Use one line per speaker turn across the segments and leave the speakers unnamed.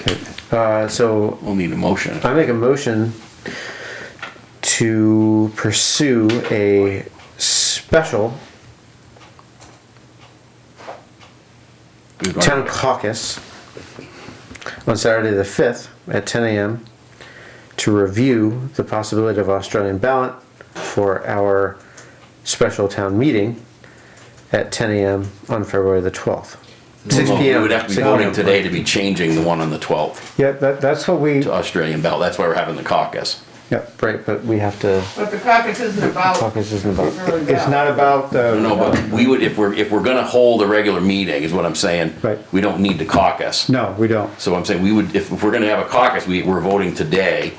Okay, uh, so
We'll need a motion.
I make a motion to pursue a special
We've already-
town caucus on Saturday the fifth at ten AM to review the possibility of Australian ballot for our special town meeting at ten AM on February the twelfth. Six
Well,
PM.
We would have to be
6
voting
PM.
today to be changing the one on the twelfth
Yeah, that, that's what we,
to Australian ballot. That's why we're having the caucus.
yeah.
Right, but we have to,
But the caucus isn't about.
caucus isn't about.
Really
It's
bad.
not about, uh,
No, but we would, if we're, if we're gonna hold a regular meeting, is what I'm saying.
Right.
We don't need the caucus.
no, we don't.
So I'm saying we would, if if we're gonna have a caucus, we, we're voting today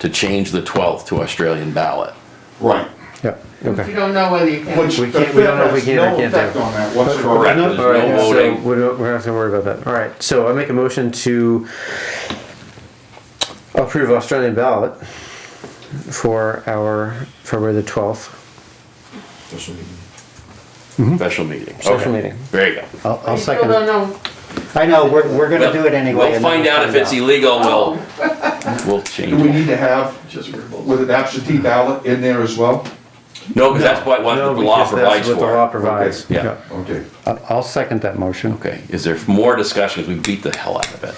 to change the twelfth to Australian ballot.
Right.
Yeah.
Okay.
You don't know whether you can.
Which
We
the
can't- we don't know if we
fifth
can or
has no
can't do.
effect on that
Correct.
whatsoever.
There's
All right,
no
so
voting.
we're not, we're not gonna worry about that. All right, so I make a motion to approve Australian ballot for our February the twelfth.
Mm-hmm.
Special meeting.
Special
Okay.
meeting.
There you go.
I'll, I'll
You still don't
second.
know.
I know, we're, we're gonna do it anyway.
We'll
and then
find out if it's illegal, we'll,
Oh,
we'll
Do we
change it.
need to have, with an absentee ballot in there as well?
No, because that's what, what
No,
the law
because
provides
that's what the law
for.
provides.
Yeah.
Yeah.
Okay.
I'll, I'll second that motion.
Okay, is there more discussion? We beat the hell out of it.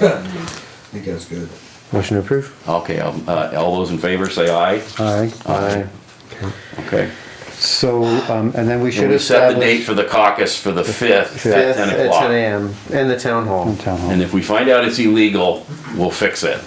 think that's good.
Motion to approve.
Okay, um, uh, all those in favor, say aye.
All right,
Aye.
Okay.
so, um, and then we
Should
should
we set the date
establish.
for the caucus for the fifth at
Fifth
ten
at ten
o'clock?
AM in the town hall.
in town hall.
And if we find out it's illegal, we'll fix it.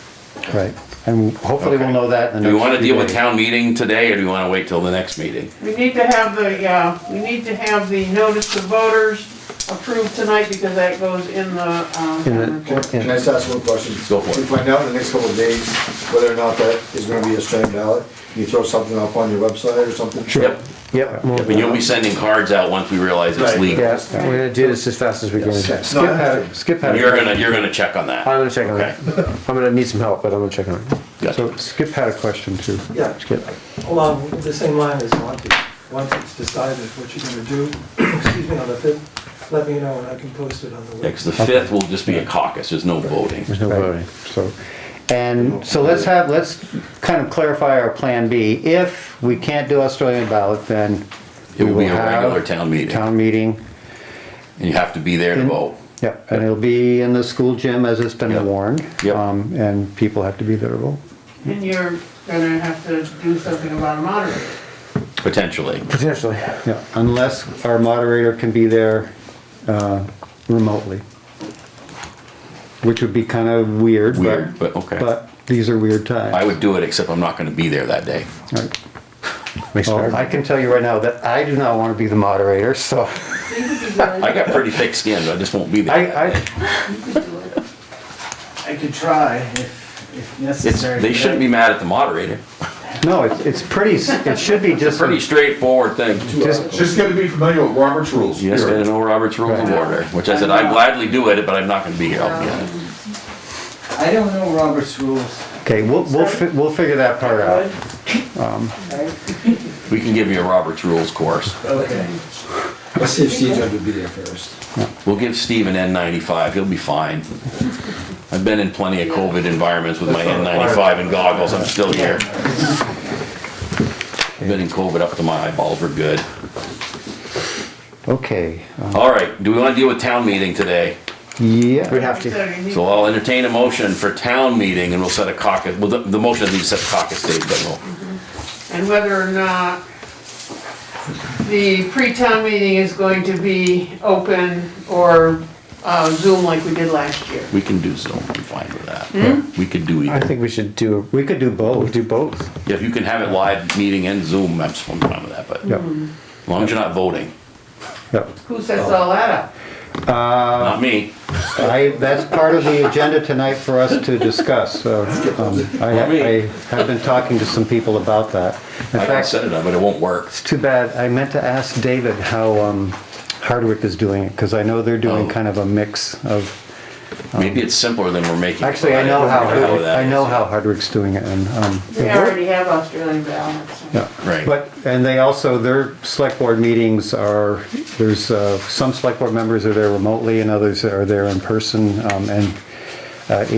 Right, and hopefully we'll
Okay.
know that in the
Do
next.
we wanna
few
deal with
days.
town meeting today, or do we wanna wait till the next meeting?
We need to have the, uh, we need to have the notice to voters approved tonight because that goes in the, uh,
In
town
the-
report.
Can I just ask one question?
Go for it.
Can you find out in the next couple of days whether or not that is gonna be a Australian ballot? Can you throw something up on your website or something?
Yep.
Yep.
I mean, you'll be sending cards out once we realize it's
Right.
legal.
Yes, we're gonna do this as fast as we can. I'm
Yes. No, I
Skip had,
understand.
skip
And
had.
You're gonna, you're gonna check on that.
gonna check on it. I'm gonna need some help, but I'm gonna check on it.
Gotcha.
So Skip had a question too.
Yeah.
Skip.
Along the same line as Monty, once it's decided what you're gonna do, excuse me, on the fifth, let me know and I can post it on the
Yeah,
web.
'cause the fifth will just be a caucus, there's no voting.
There's no
Right.
voting.
So, and so let's have, let's kind of clarify our plan B. If we can't do Australian ballot, then
It
we
will be a
have
regular town meeting,
Town meeting,
and you have to be there to vote.
yep, and it'll be in the school gym as it's been
Yep.
warned.
Yep.
Um, and people have to be there to vote.
And you're gonna have to do something about a moderator.
Potentially.
Potentially.
Yeah, unless our moderator can be there uh, remotely. Which would be kind of weird, but.
Weird, but okay.
But these are weird times.
I would do it, except I'm not gonna be there that day.
Right.
Makes it
Well, I
hard.
can tell you right now that I do not want to be the moderator, so
You could do that.
I got pretty thick skin, but I just won't be there.
I, I,
I could try if, if
It's,
necessary.
they shouldn't be mad at the moderator.
no, it's, it's pretty, s- it should be just,
Pretty straightforward thing.
just,
Just gotta be familiar with Robert's rules.
Yes,
Here.
I know Robert's Rules of Order, which I said, I gladly do it, but I'm not gonna be here. I'll be on it.
I don't know Robert's rules.
okay, we'll, we'll, fi- we'll figure that part out.
Right?
We can give you a Robert's Rules course.
Okay.
Let's see if Steve's going to be there first.
We'll give Steve an N95, he'll be fine. I've been in plenty of COVID environments with my N95 and goggles, I'm still here. I've Been in COVID up to my eyeballs, we're good.
Okay, uh,
All right, do we wanna deal with town meeting today?
We
yeah,
have to.
So you need-
So I'll entertain a motion for town meeting and we'll set a caucus, well, the, the motion is to set caucus date, but we'll
and whether or not the pre-town meeting is going to be open or uh, Zoom like we did last year.
We can do Zoom, I'm fine with that. We could do
I
either.
think we should do,
we could do
we
both.
do both.
If you can have it live meeting and Zoom, that's I'm fine with that, but as
Yep,
long as you're not voting,
yep.
Who sets all that up?
not me.
I, that's part of the agenda tonight for us to discuss, so, um, I, I have been talking to some people about that. In
I can
fact,
set it up, but it won't work.
it's too bad, I meant to ask David how, um, Hardwick is doing it, because I know they're doing
Oh.
kind of a mix of
Maybe it's simpler than we're making. it,
Actually,
but
I know
don't
how,
know
Hardwick-
that
I know
is.
how Hardwick's doing it and, um,
We already have Australian ballots.
yeah.
Right.
But, and they also, their select board meetings are, there's, uh, some select board members are there remotely and others are there in person, um, and, uh,